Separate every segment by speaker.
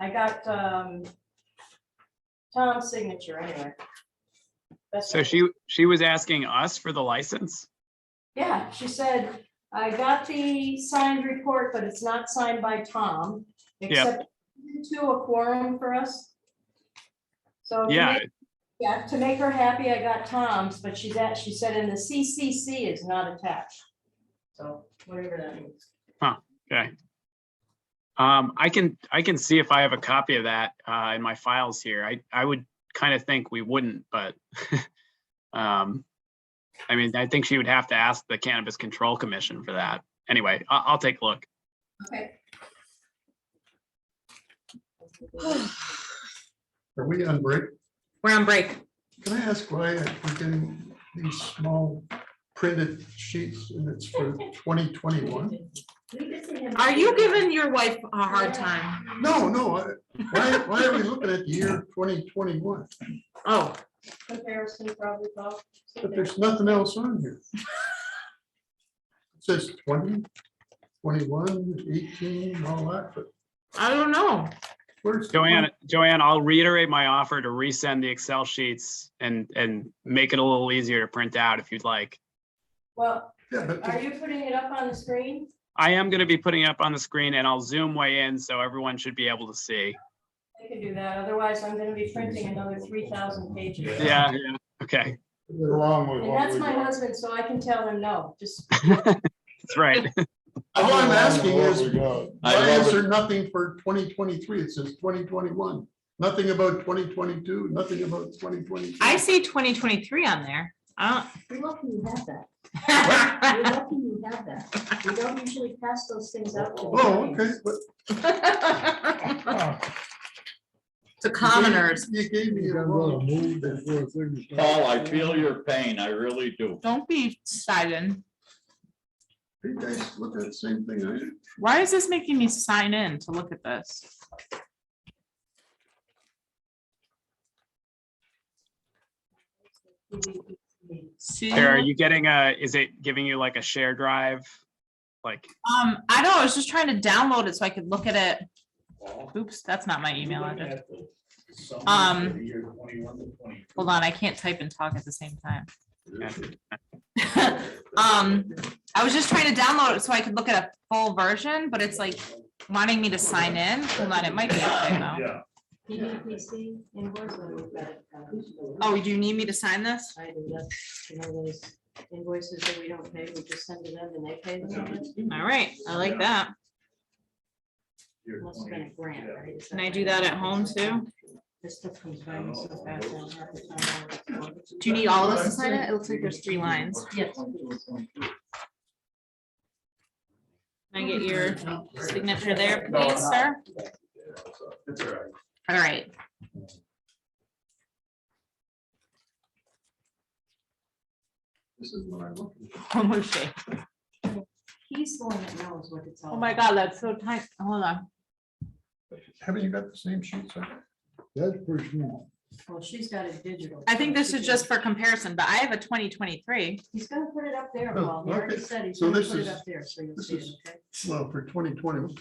Speaker 1: I got, um, Tom's signature anyway. That's
Speaker 2: So she, she was asking us for the license?
Speaker 1: Yeah, she said, I got the signed report, but it's not signed by Tom. except To a quorum for us. So. to
Speaker 2: Yeah,
Speaker 1: make- Yeah, to make her happy, I got Tom's, but she's at, she said, and the CCC is not attached. So whatever that means.
Speaker 2: okay. Um, I can, I can see if I have a copy of that, uh, in my files here. I, I would kind of think we wouldn't, but, um, I mean, I think she would have to ask the Cannabis Control Commission for that. Anyway, I, I'll take a look.
Speaker 1: Okay.
Speaker 3: Are we on break?
Speaker 4: We're on break.
Speaker 3: Can I ask why we're getting these small printed sheets and it's for 2021?
Speaker 4: Are you giving your wife a hard time?
Speaker 3: No, no, I- why, why are we looking at the year 2021?
Speaker 4: Oh,
Speaker 1: Comparison probably. Bob.
Speaker 3: But there's nothing else on here. It says 20, 21, 18, all that, but
Speaker 4: I don't know.
Speaker 3: where's? the
Speaker 2: Joanne, Joanne, I'll reiterate my offer to resend the Excel sheets and, and make it a little easier to print out if you'd like.
Speaker 1: Well,
Speaker 3: Yeah, but
Speaker 1: are you putting it up on the screen?
Speaker 2: I am going to be putting it up on the screen and I'll zoom way in so everyone should be able to see.
Speaker 1: I can do that. Otherwise, I'm gonna be printing another three thousand pages.
Speaker 2: Yeah, yeah, okay,
Speaker 3: they're long.
Speaker 1: And that's my husband, so I can tell him no, just.
Speaker 2: that's right.
Speaker 3: All I'm asking is,
Speaker 5: I
Speaker 3: Why
Speaker 5: love
Speaker 3: is
Speaker 5: it.
Speaker 3: there nothing for twenty twenty-three? It says twenty twenty-one. Nothing about twenty twenty-two, nothing about twenty twenty-three.
Speaker 4: I see twenty twenty-three on there. I
Speaker 6: You're lucky you have that. You're
Speaker 4: don't.
Speaker 6: lucky you have that. We don't usually pass those things out. to the
Speaker 3: Oh,
Speaker 6: audience.
Speaker 3: okay. but
Speaker 4: The
Speaker 3: you gave-
Speaker 4: commoners.
Speaker 3: You gave me a wrong.
Speaker 5: Paul, I feel your pain, I really do.
Speaker 4: Don't be silent.
Speaker 3: You guys look at the same thing I do.
Speaker 4: Why is this making me sign in to look at this? See?
Speaker 2: Sarah, are you getting a, is it giving you like a share drive? Like,
Speaker 4: Um, I know, I was just trying to download it so I could look at it. Oops, that's not my email address. Um, Hold on, I can't type and talk at the same time. Um, I was just trying to download it so I could look at a full version, but it's like wanting me to sign in. Hold on, it might be up there though.
Speaker 1: PVPC invoice letter. we've got uh, it.
Speaker 4: Oh, do you need me to sign this?
Speaker 1: I do that, you know, those invoices that we don't pay, we just send to them and they pay them.
Speaker 4: All right, I like that.
Speaker 1: Must have been a grant, right? Is
Speaker 4: Can I do that at home too?
Speaker 1: This stuff comes by me so fast. I don't have the time all the time.
Speaker 4: Do you need all of us to sign it? It looks like there's three lines.
Speaker 1: Yes.
Speaker 4: Can I get your signature there, please, sir?
Speaker 3: That's all right.
Speaker 4: All right.
Speaker 3: This is what I'm looking for.
Speaker 4: Almost shake.
Speaker 1: He's the one that knows what it's all.
Speaker 4: Oh my
Speaker 1: about.
Speaker 4: God, that's so tight. Hold on.
Speaker 3: Haven't you got the same sheets? That's pretty small.
Speaker 1: Well, she's got it digital.
Speaker 4: I think
Speaker 1: so
Speaker 4: this
Speaker 1: she
Speaker 4: is
Speaker 1: can-
Speaker 4: just for comparison, but I have a twenty twenty-three.
Speaker 1: He's gonna put it up there,
Speaker 3: Oh,
Speaker 1: Paul. He already
Speaker 3: okay.
Speaker 1: said he's
Speaker 3: So
Speaker 1: gonna
Speaker 3: this
Speaker 1: put it
Speaker 3: is-
Speaker 1: up there, so you'll
Speaker 3: this
Speaker 1: see it,
Speaker 3: is-
Speaker 1: okay?
Speaker 3: Well, for twenty twenty.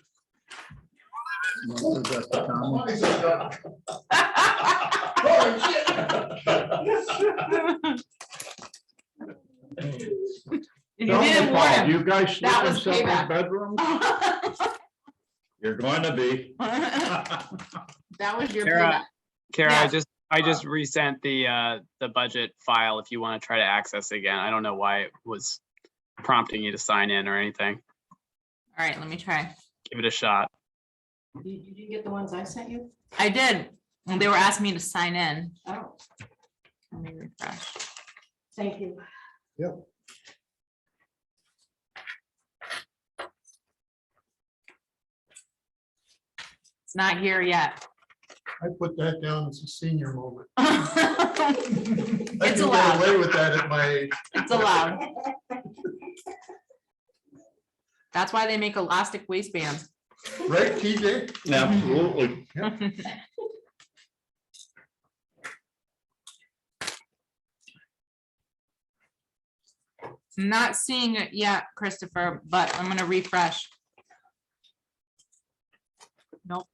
Speaker 4: You didn't warn him.
Speaker 5: You guys
Speaker 4: That was payback.
Speaker 5: bedrooms? You're going to be.
Speaker 4: That was your.
Speaker 2: Sarah, Kara, I
Speaker 4: Yeah.
Speaker 2: just, I just resent the, uh, the budget file if you want to try to access again. I don't know why it was prompting you to sign in or anything.
Speaker 4: All right, let me try.
Speaker 2: Give it a shot.
Speaker 1: You, you didn't get the ones I sent you?
Speaker 4: I did. and They were asking me to sign in.
Speaker 1: Oh,
Speaker 4: Let me refresh.
Speaker 1: thank you.
Speaker 4: It's not here yet.
Speaker 3: I put that down as a senior moment. I
Speaker 4: It's
Speaker 3: can get
Speaker 4: allowed.
Speaker 3: Away with that at my age.
Speaker 4: It's allowed. That's why they make elastic waistbands.
Speaker 3: right, TJ?
Speaker 5: Absolutely.
Speaker 4: Not seeing it yet, Christopher, but I'm gonna refresh. Nope,